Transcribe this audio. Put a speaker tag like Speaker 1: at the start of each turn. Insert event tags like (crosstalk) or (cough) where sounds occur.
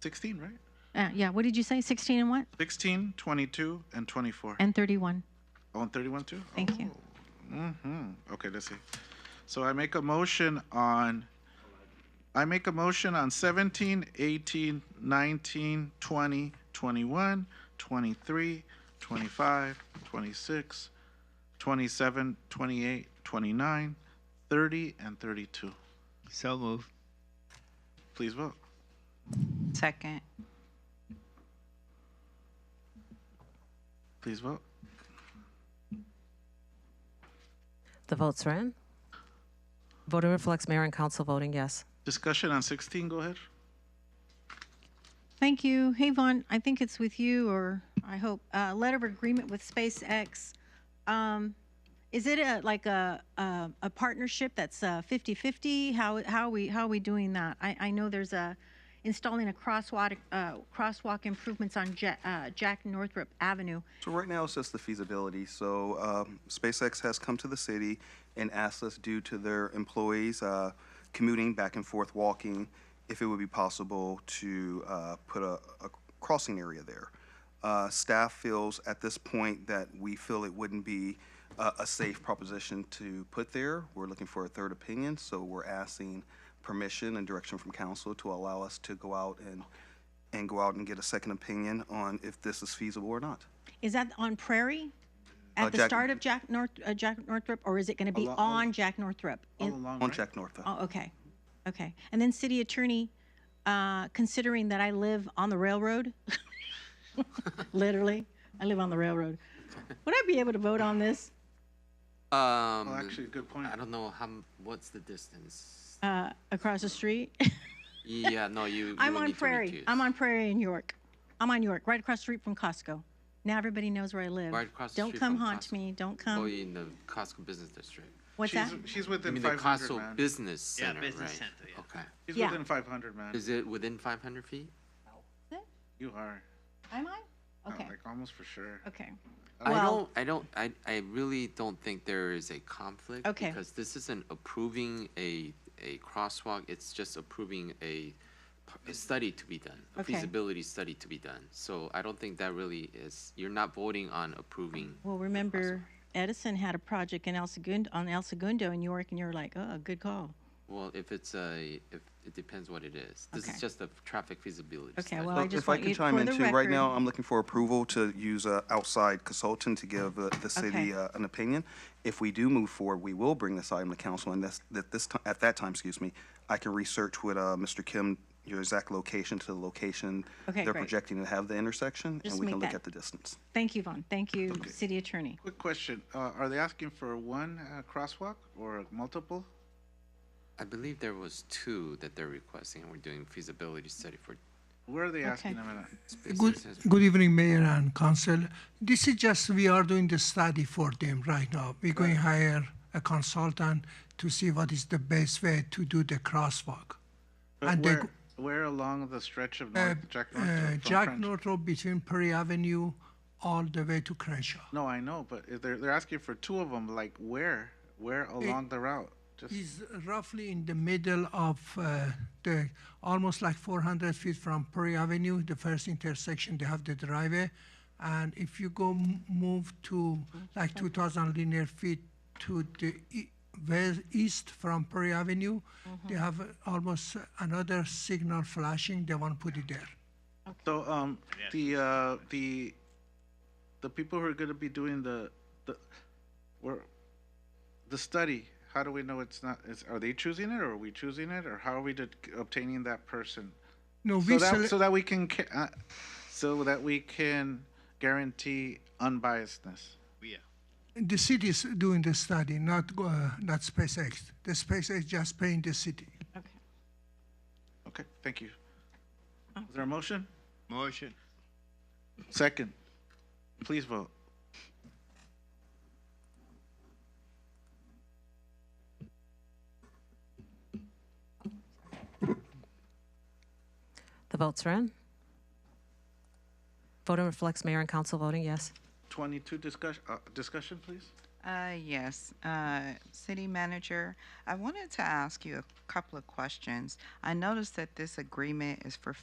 Speaker 1: 16, right?
Speaker 2: Uh, yeah, what did you say? 16 and what?
Speaker 1: 16, 22, and 24.
Speaker 2: And 31.
Speaker 1: Oh, and 31 too?
Speaker 2: Thank you.
Speaker 1: hmm Okay, let's see. So I make a motion on, I make a motion on 17, 18, 19, 20, 21, 23, 25, 26, 27, 28, 29, 30, and 32.
Speaker 3: So move.
Speaker 1: Please vote.
Speaker 4: Second.
Speaker 1: Please vote.
Speaker 5: The votes are in. Voting reflects mayor and council voting yes.
Speaker 1: Discussion on 16, go ahead.
Speaker 2: Thank you. Hey, Vaughn, I think it's with you, or I hope, uh, letter of agreement with SpaceX. Um, is it a, like a, a, a partnership that's uh, 50-50? How, how are we, how are we doing that? I, I know there's a, installing a crosswalk, uh, crosswalk improvements on Ja- uh, Jack Northrop Avenue.
Speaker 6: So right now, it's just the feasibility. So um, SpaceX has come to the city and asked us, due to their employees uh, commuting back and forth, walking, if it would be possible to uh, put a a crossing area there. Uh, Staff feels at this point that we feel it wouldn't be uh, a safe proposition to put there. We're looking for a third opinion, so we're asking permission and direction from council to allow us to go out and, and go out and get a second opinion on if this is feasible or not.
Speaker 2: Is that on Prairie?
Speaker 6: Uh,
Speaker 2: At the
Speaker 6: Jack-
Speaker 2: start of Jack North, uh, Jack Northrop, or is it gonna be
Speaker 1: Oh, Along-
Speaker 2: on Jack Northrop?
Speaker 1: All
Speaker 2: In-
Speaker 1: along,
Speaker 6: On
Speaker 1: right?
Speaker 6: Jack Northup.
Speaker 2: Oh, okay, okay. And then city attorney, uh, considering that I live on the railroad, (laughs) literally, I live on the railroad, would I be able to vote on this? Oh,
Speaker 7: Um,
Speaker 1: Well, Oh, actually, good point.
Speaker 7: I don't know how. m- What's the distance?
Speaker 2: Uh, across the street?
Speaker 7: yeah, no, you.
Speaker 2: I'm
Speaker 7: you
Speaker 2: on
Speaker 7: need to
Speaker 2: Prairie,
Speaker 7: reduce.
Speaker 2: I'm on Prairie in York. I'm on York, right across the street from Costco. Now everybody knows where I live.
Speaker 7: Right across the
Speaker 2: Don't
Speaker 7: street
Speaker 2: come
Speaker 7: from
Speaker 2: haunt
Speaker 7: Costco.
Speaker 2: me, don't
Speaker 7: Oh,
Speaker 2: come,
Speaker 7: you're in the Costco business district.
Speaker 2: what's
Speaker 1: she's,
Speaker 2: that?
Speaker 1: she's
Speaker 7: I
Speaker 1: within
Speaker 7: mean, the
Speaker 1: 500,
Speaker 7: Costco
Speaker 1: man.
Speaker 7: business center,
Speaker 3: business
Speaker 7: right?
Speaker 3: center, yeah.
Speaker 7: Okay.
Speaker 1: She's
Speaker 2: Yeah.
Speaker 1: within 500, man.
Speaker 7: Is it within 500 feet?
Speaker 1: You are.
Speaker 2: Am I?
Speaker 1: Uh,
Speaker 2: Okay,
Speaker 1: Like almost for sure.
Speaker 2: okay.
Speaker 7: I
Speaker 2: Uh, Well-
Speaker 7: don't. I don't. I. I really don't think there is a conflict.
Speaker 2: Okay.
Speaker 7: Because this isn't approving a a crosswalk. It's just approving a, p- a study to be done, a
Speaker 2: Okay.
Speaker 7: feasibility study to be done. So I don't think that really is. You're not voting on approving.
Speaker 2: Well, remember Edison had a project in El Segundo, on El Segundo in York, and you were like, oh, good call.
Speaker 7: Well, if it's a, if, it depends what it is. This
Speaker 2: Okay.
Speaker 7: is just a traffic feasibility.
Speaker 2: Okay,
Speaker 7: study.
Speaker 2: well, I
Speaker 6: Well,
Speaker 2: just
Speaker 6: If I
Speaker 2: want
Speaker 6: can
Speaker 2: you,
Speaker 6: chime
Speaker 2: for
Speaker 6: in
Speaker 2: the
Speaker 6: too, right now,
Speaker 2: record,
Speaker 6: I'm looking for approval to use an outside consultant to give uh, the
Speaker 2: Okay.
Speaker 6: city uh, an opinion. If we do move forward, we will bring this item to council, and that's, that this, ti- at that time, excuse me, I can research with uh, Mr. Kim your exact location to the location
Speaker 2: Okay,
Speaker 6: they're
Speaker 2: great.
Speaker 6: projecting to have the intersection,
Speaker 2: Just
Speaker 6: and we
Speaker 2: make
Speaker 6: can look
Speaker 2: that-
Speaker 6: at the distance.
Speaker 2: thank you, Vaughn, thank you, city attorney.
Speaker 1: Quick question, uh, are they asking for one uh, crosswalk or multiple?
Speaker 7: I believe there was two that they're requesting, and we're doing feasibility study for.
Speaker 1: Where are they asking
Speaker 2: Okay.
Speaker 1: them? at?
Speaker 7: space
Speaker 8: Good,
Speaker 7: distance.
Speaker 8: good evening, Mayor and Council. This is just, we are doing the study for them right now. We're going to hire a consultant to see what is the best way to do the crosswalk.
Speaker 1: But
Speaker 8: And they
Speaker 1: where,
Speaker 8: go-
Speaker 1: where along the stretch of
Speaker 8: Uh,
Speaker 1: North, Jack North?
Speaker 8: uh,
Speaker 1: from
Speaker 8: Jack
Speaker 1: French?
Speaker 8: Northrop between Perry Avenue all the way to Crenshaw.
Speaker 1: No, I know, but if they're, they're asking for two of them, like where? Where along the route? Just,
Speaker 8: Is roughly in the middle of uh, the, almost like 400 feet from Perry Avenue, the first intersection, they have the driveway. And if you go m- move to like 2,000 linear feet to the e- west, east from Perry Avenue, they have uh, almost another signal flashing, they want to put it there.
Speaker 1: so, um, the, uh, the, the people who are gonna be doing the, the, where, the study, how do we know it's not, is, are they choosing it or are we choosing it? Or how are we det- obtaining that person?
Speaker 8: No,
Speaker 1: So
Speaker 8: we
Speaker 1: that,
Speaker 8: sele-
Speaker 1: so that we can, ca- uh, so that we can guarantee unbiasedness.
Speaker 8: the city is doing the study, not, go- uh, not SpaceX. The SpaceX just paying the city.
Speaker 2: Okay.
Speaker 1: Okay, thank you. Is there a motion?
Speaker 3: Motion.
Speaker 1: Second. Please vote.
Speaker 5: The votes are in. Voting reflects mayor and council voting yes.
Speaker 1: Twenty-two discussion, uh, discussion, please.
Speaker 4: Uh, yes, uh, city manager, I wanted to ask you a couple of questions. I noticed that this agreement is for